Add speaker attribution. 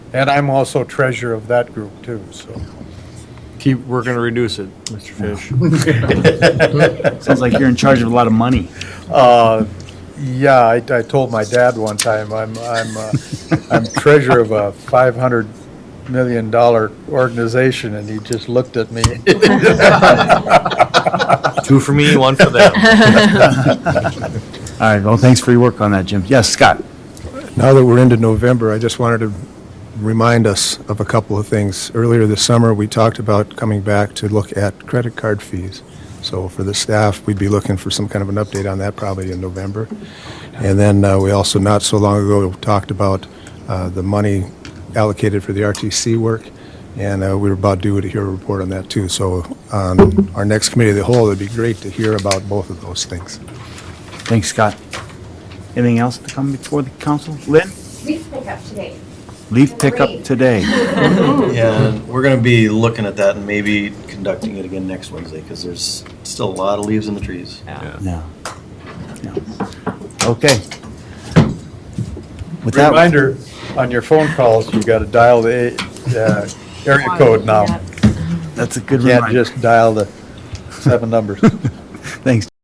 Speaker 1: And I'm also treasurer of that group too, so.
Speaker 2: Keep, we're gonna reduce it, Mr. Fish.
Speaker 3: Sounds like you're in charge of a lot of money.
Speaker 1: Uh, Yeah, I, I told my dad one time, I'm, I'm, uh, I'm treasurer of a five hundred million dollar organization, and he just looked at me.
Speaker 2: Two for me, one for them.
Speaker 3: All right, well, thanks for your work on that, Jim. Yes, Scott?
Speaker 4: Now that we're into November, I just wanted to remind us of a couple of things. Earlier this summer, we talked about coming back to look at credit card fees. So for the staff, we'd be looking for some kind of an update on that probably in November. And then uh, we also, not so long ago, talked about uh, the money allocated for the RTC work, and uh, we were about due to hear a report on that too. So on our next committee of the whole, it'd be great to hear about both of those things.
Speaker 3: Thanks, Scott. Anything else to come before the council? Lynn?
Speaker 5: Leaf pickup today.
Speaker 3: Leaf pickup
Speaker 5: Great.
Speaker 3: today.
Speaker 6: And we're gonna be looking at that and maybe conducting it again next Wednesday, because there's still a lot of leaves in the trees.
Speaker 3: No. No. Okay. With that-
Speaker 1: Reminder, on your phone calls, you gotta dial the, uh, area code now.
Speaker 3: That's a good
Speaker 1: Can't
Speaker 3: reminder.
Speaker 1: just dial the seven numbers.
Speaker 3: Thanks,